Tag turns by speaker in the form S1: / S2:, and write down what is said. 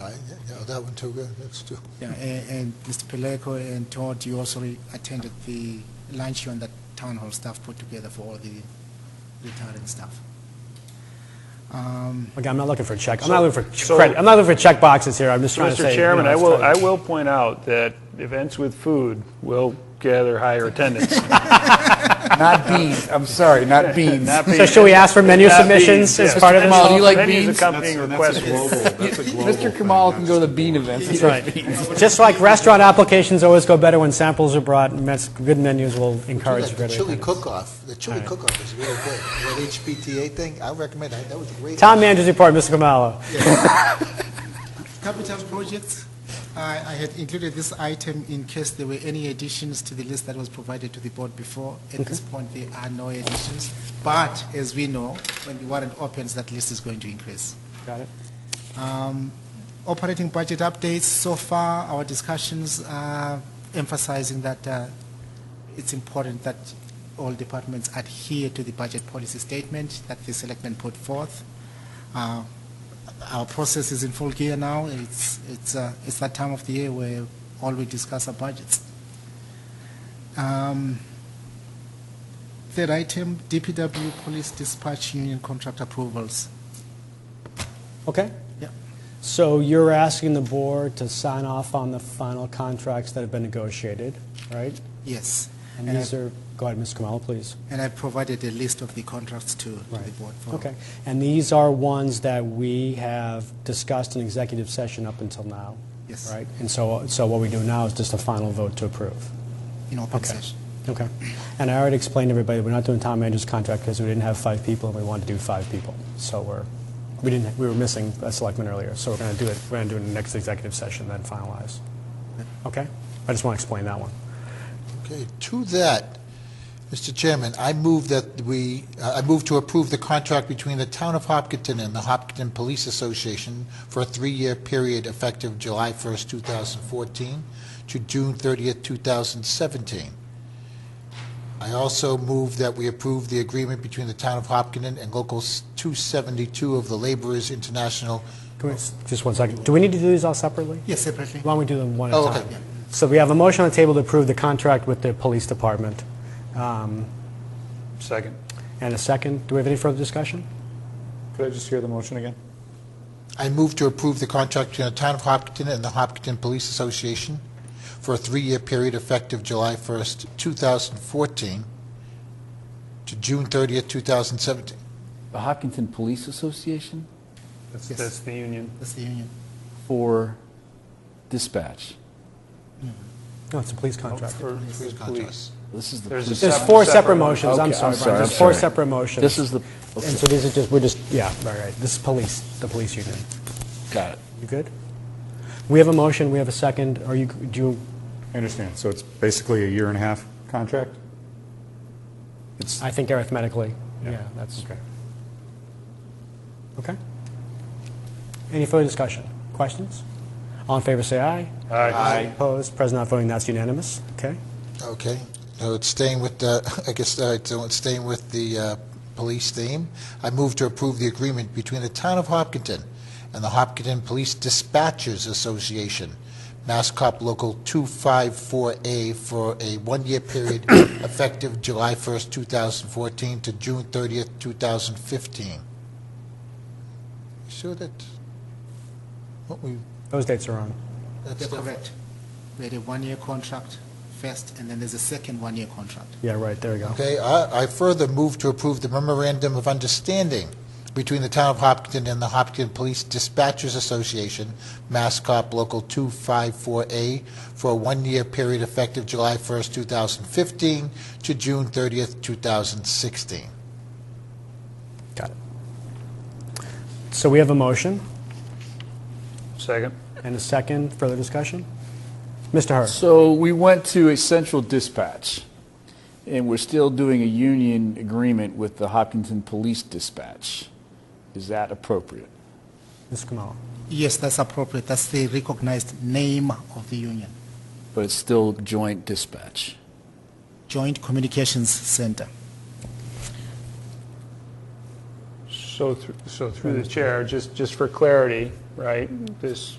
S1: I, yeah, that one too, good, that's too.
S2: Yeah, and, and Mr. Peleko and Todd, you also re- attended the luncheon that town hall staff put together for all the retiring staff. Um,
S3: Okay, I'm not looking for a check, I'm
S4: So-
S3: not looking for ch-
S4: so-
S3: credit, I'm not looking for check boxes here, I'm just trying to say.
S4: Mr.
S3: you
S4: Chairman,
S3: know,
S4: I
S3: it's
S4: will,
S3: time.
S4: I will point out that events with food will gather higher attendance.
S5: Not beans, I'm sorry, not beans.
S4: Not
S3: So
S4: being-
S3: should we ask for menu
S4: not being-
S3: submissions as
S4: yes.
S3: part of this?
S5: Kamal, do you like
S4: Menus
S5: beans?
S4: accompanying requests will
S5: That's a global Mr. Kamal can go to the bean events.
S3: That's right. Just like restaurant applications always go better when samples are brought, and that's- good menus will encourage
S1: The
S3: greater
S1: chili
S3: attendance.
S1: cook-off, the chili cook-off is really good. That HPTA thing, I recommend, that That was great.
S3: Town manager's report, Mr. Kamala.
S2: Capital projects, I, I had included this item in case there were any additions to the list that was provided to the board before. At this point, there are no additions, but as we know, when the warrant opens, that list is going to increase.
S3: Got it.
S2: Um, Operating budget updates, so far, our discussions are emphasizing that uh, it's important that all departments adhere to the budget policy statement that the selectmen put forth. Uh, Our process is in full gear now. It's, it's, uh, it's that time of the year where all we discuss are budgets. Um, Third item, DPW Police Dispatch Union Contract Approvals.
S3: Okay.
S2: Yep.
S3: So you're asking the board to sign off on the final contracts that have been negotiated, right?
S2: Yes.
S3: And
S2: And I-
S3: these are, go ahead, Ms. Kamala, please.
S2: And I provided a list of the contracts to to the
S3: Right.
S2: board for.
S3: Okay. And these are ones that we have discussed in executive session up until now?
S2: Yes.
S3: Right? And so, so what we do now is just a final vote to approve?
S2: In open
S3: Okay.
S2: session.
S3: Okay. And I already explained to everybody, we're not doing town manager's contract because we didn't have five people and we wanted to do five people. So we're, we didn't, we were missing a selectman earlier, so we're going to do it, we're going to do it in the next executive session, then finalize. Okay? I just want to explain that one.
S1: Okay, to that, Mr. Chairman, I move that we, uh, I move to approve the contract between the Town of Hopkinton and the Hopkinton Police Association for a three-year period effective July 1st, 2014 to June 30th, 2017. I also move that we approve the agreement between the Town of Hopkinton and Local 272 of the Laborers International.
S3: Can we, just one second. Do we need to do these all separately?
S2: Yes, separately.
S3: Why don't we do them one at
S1: Oh,
S3: a
S1: okay.
S3: time? So we have a motion on the table to approve the contract with the police department.
S4: Second.
S3: And a second, do we have any further discussion?
S5: Could I just hear the motion again?
S1: I move to approve the contract between the Town of Hopkinton and the Hopkinton Police Association for a three-year period effective July 1st, 2014 to June 30th, 2017.
S6: The Hopkinton Police Association
S4: That's,
S2: Yes.
S4: that's the union.
S2: That's the union.
S6: for dispatch.
S3: No, it's a police
S6: Oh,
S3: contract.
S4: For
S1: Police contracts.
S6: This is the.
S4: There's a
S6: police-
S3: There's
S4: Separate-
S3: four
S4: separate
S3: separate motions,
S6: Okay,
S3: I'm
S6: I'm
S3: sorry,
S6: sorry,
S3: Brian. there's
S6: I'm
S3: four
S6: sorry.
S3: separate motions.
S6: This is the, okay,
S3: And so these are just, we're just, yeah, all right, this is police, the police union.
S6: got it.
S3: You good? We have a motion, we have a second, are you, do you,
S5: I understand, so it's basically a year and a half contract? It's,
S3: I think arithmetically, yeah, that's. Okay. Okay? Any further discussion? Questions? All in favor, say aye. Aye. Opposed, present not voting, that's unanimous, okay?
S1: Okay, so it's staying with, the- I guess, all right, so it's staying with the uh, police theme. I move to approve the agreement between the Town of Hopkinton and the Hopkinton Police Dispatchers Association, Mass Cop Local 254A, for a one-year period effective July 1st, 2014 to June 30th, 2015. You Sure that, what we,
S3: Those dates are on.
S1: that's
S2: You're
S1: the-
S2: correct. We had a one-year contract first, and then there's a second one-year contract.
S3: Yeah, right, there we go.
S1: Okay, I I further move to approve the memorandum of understanding between the Town of Hopkinton and the Hopkinton Police Dispatchers Association, Mass Cop Local 254A, for a one-year period effective July 1st, 2015 to June 30th, 2016.
S3: Got it. So we have a motion
S4: Second.
S3: and a second, further discussion? Mr. Hurst?
S6: So we went to a central dispatch, and we're still doing a union agreement with the Hopkinton Police Dispatch. Is that appropriate?
S3: Ms. Kamala?
S2: Yes, that's appropriate. That's the recognized name of the union,
S6: But it's still joint dispatch.
S2: Joint Communications Center.
S4: So, thr- so through the chair, just, just for clarity, right? This